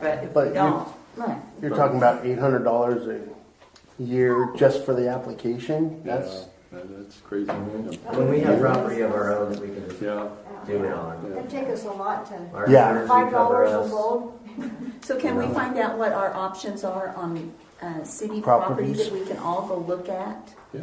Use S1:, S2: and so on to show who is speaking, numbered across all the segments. S1: but if
S2: But
S1: we
S2: you-
S1: don't,
S3: Right.
S2: You're talking about eight hundred dollars a year just for the application? That's,
S4: Yeah, That's crazy.
S5: When we have property of our own that we can just
S4: Yeah,
S5: do it on.
S6: It'd take us a lot to,
S5: Our
S2: Yeah.
S5: insurance
S6: five
S5: would cover
S6: dollars a
S5: us.
S6: bulb,
S3: So can we find out what our options are on uh, city property
S2: Properties.
S3: that we can all go look at?
S4: yeah,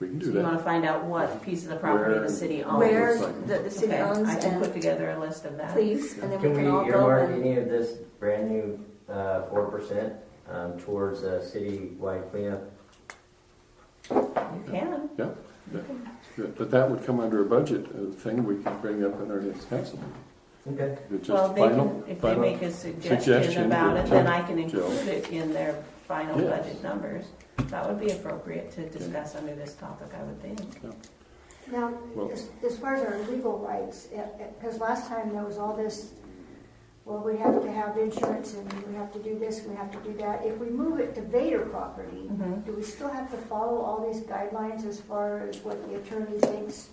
S4: we can do
S1: you want
S4: that.
S1: to find out what piece of the property
S4: Where-
S1: the city owns.
S3: Where
S4: like-
S3: the the city
S1: Okay,
S3: owns
S1: I can put
S3: and
S1: together a list of that.
S3: please, and then we
S5: Can we
S3: can all go
S5: earmark
S3: and.
S5: any of this brand new uh, four percent um, towards a citywide cleanup?
S1: You can.
S4: Yeah, yeah, good. but that would come under a budget uh, thing we can bring up in our next council. meeting.
S5: Okay.
S4: It's
S1: Well,
S4: just
S1: they
S4: final,
S1: can, if they
S4: final.
S1: make a
S4: suggestion
S1: suggestion about
S4: to-
S1: it, then I can
S4: to-
S1: include it in their final
S4: Yes.
S1: budget numbers. That would be appropriate to discuss under this topic, I would think.
S6: now,
S4: Well-
S6: as, as far as our legal rights, because last time there was all this, well, we have to have insurance and we have to do this, and we have to do that, if we move it to Vader property,
S3: Mm-hmm.
S1: Mhm.
S6: do we still have to follow all these guidelines as far as what the attorney thinks?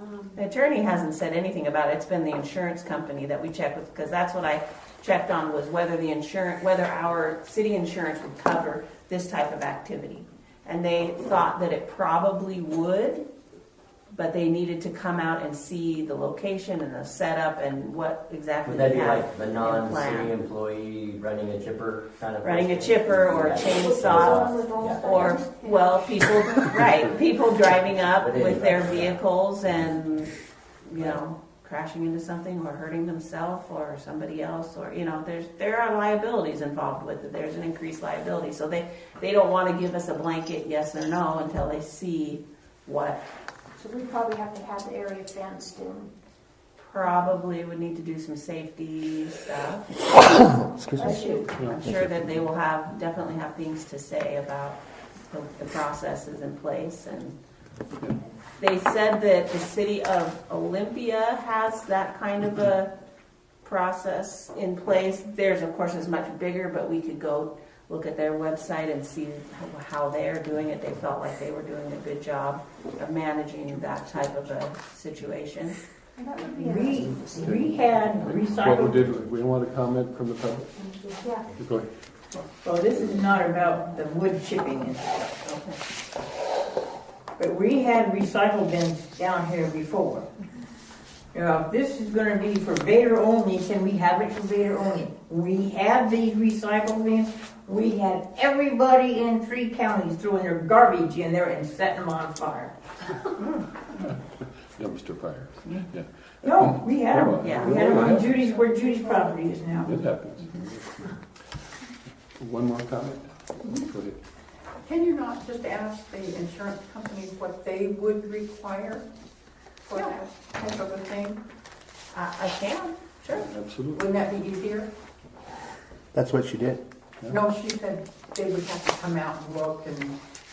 S6: Um,
S1: The attorney hasn't said anything about it. It's been the insurance company that we checked with, because that's what I checked on was whether the insurance, whether our city insurance would cover this type of activity. And they thought that it probably would, but they needed to come out and see the location and the setup and what exactly
S5: Would that
S1: they
S5: be
S1: had.
S5: like the
S1: plan.
S5: non-city employee running a chipper kind of?
S1: Running a
S5: person?
S1: chipper or a
S5: Yeah.
S1: chainsaw
S5: Yeah.
S1: Or, well, people, right, people driving up with their vehicles and, you know, crashing into something or hurting themselves or somebody else, or, you know, there's, there are liabilities involved with it, there's an increased liability, so they, they don't wanna give us a blanket yes or no until they see what
S6: So we probably have to have the area fenced and
S1: probably would need to do some safety stuff.
S2: excuse
S6: I
S2: me.
S6: shoot.
S1: I'm sure that they will have, definitely have things to say about the, the processes in place and they said that the city of Olympia has that kind of a process in place. Theirs, of course, is much bigger, but we could go look at their website and see how they're doing it. They felt like they were doing a good job of managing that type of a situation.
S6: And that would be
S7: We,
S6: interesting to see.
S7: we had
S4: What we
S7: recycled,
S4: did, we want to comment from the public?
S6: Yeah.
S4: Go ahead.
S7: well, this is not about the wood chipping and stuff, but we had recycle bins down here before. Now, if this is gonna be for Vader only, can we have it for Vader only? We had these recycle bins, we had everybody in three counties throwing their garbage in there and setting them on fire.
S4: Yeah, Mr. Fires. Yeah,
S7: No, we had them,
S1: Yeah.
S7: we had them on Judy's, where Judy's property is now.
S4: it happens. One more comment? Go ahead.
S8: Can you not just ask the insurance company what they would require for that type of a thing?
S1: I, I can, sure.
S4: Absolutely.
S8: Wouldn't that be easier?
S2: That's what she did.
S8: No, she said they would have to come out and look and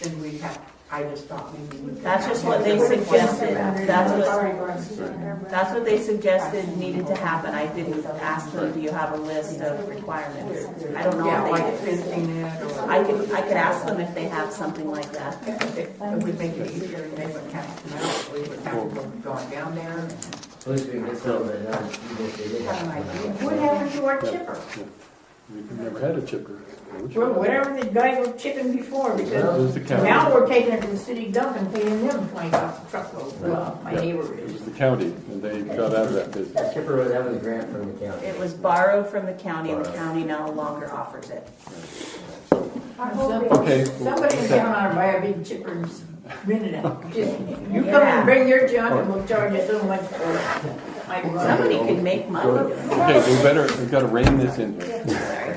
S8: then we'd have, I just thought maybe. we could
S1: That's just
S8: have
S1: what they
S8: them-
S1: suggested. That's what.
S6: Sorry, Brian.
S1: That's what they suggested needed to happen. I didn't ask them, do you have a list of requirements? I don't
S8: Yeah,
S1: know
S8: like
S1: if they,
S8: fencing it or.
S1: I could, I could ask them if they have something like that.
S8: It would make it easier and they wouldn't have to come out, we wouldn't have to go down there and
S5: At least we get some, but not even if they did
S8: have an idea.
S5: have.
S7: What happened to our chipper?
S4: We've never had a chipper.
S7: Well, whatever the guys were chipping before,
S4: That
S7: because
S4: was the county.
S7: now we're taking it to the city dump and paying them twenty bucks a truckload, well, my
S4: Yeah,
S7: neighbor
S4: It was
S7: is.
S4: the county, and they got out of that business.
S5: That chipper, was- that was a grant from the county.
S1: It was borrowed from the county and the county no longer offers it.
S7: I hope they-
S4: Okay.
S7: Somebody in town ought to buy a big chipper and just rent it out. Just, you come
S1: Yeah.
S7: and bring your junk and we'll charge you so much for it. My brother.
S1: Somebody could make money doing it.
S4: Okay, we better, we gotta rein this in here.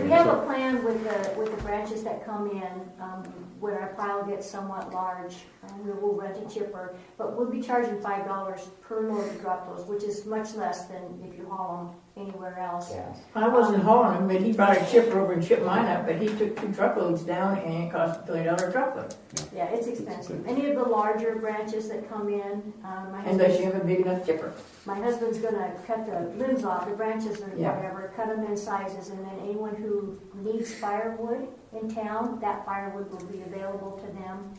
S6: We have a plan with the, with the branches that come in, um, when our pile gets somewhat large, and we will rent a chipper, but we'll be charging five dollars per load to drop those, which is much less than if you haul them anywhere else.
S5: Yeah.
S7: I wasn't hauling him, but he brought a chipper over and chipped mine up, but he took two truckloads down and it cost a three dollar truckload.
S6: Yeah, it's expensive. Any of the larger branches that come in, um, my
S7: Unless
S6: husband's,
S7: you have a big enough chipper.
S6: my husband's gonna cut the limbs off, the branches or
S7: Yeah.
S6: whatever, cut them in sizes, and then anyone who needs firewood in town, that firewood will be available to them.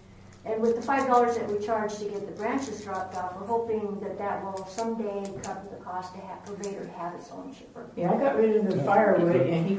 S6: And with the five dollars that we charge to get the branches dropped off, we're hoping that that will someday cover the cost to have, for Vader to have its own chipper.
S7: Yeah, I got rid of the firewood and he